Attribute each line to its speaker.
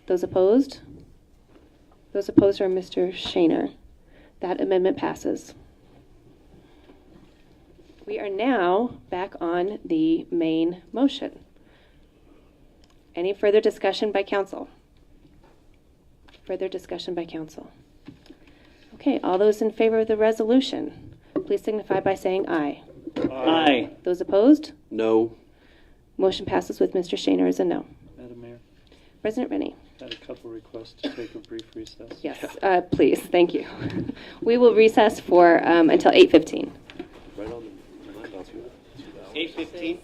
Speaker 1: Those opposed? Those opposed are Mr. Shaner. That amendment passes. We are now back on the main motion. Any further discussion by council? Further discussion by council? Okay, all those in favor of the resolution, please signify by saying aye.
Speaker 2: Aye.
Speaker 1: Those opposed?
Speaker 3: No.
Speaker 1: Motion passes with Mr. Shaner as a no.
Speaker 2: Madam Mayor,
Speaker 1: President Rennie?
Speaker 2: I had a couple requests to take a brief recess.
Speaker 1: Yes, uh, please, thank you. We will recess for, um, until 8:15.
Speaker 3: Right on the- the line, that's good.
Speaker 2: Eight fifteen.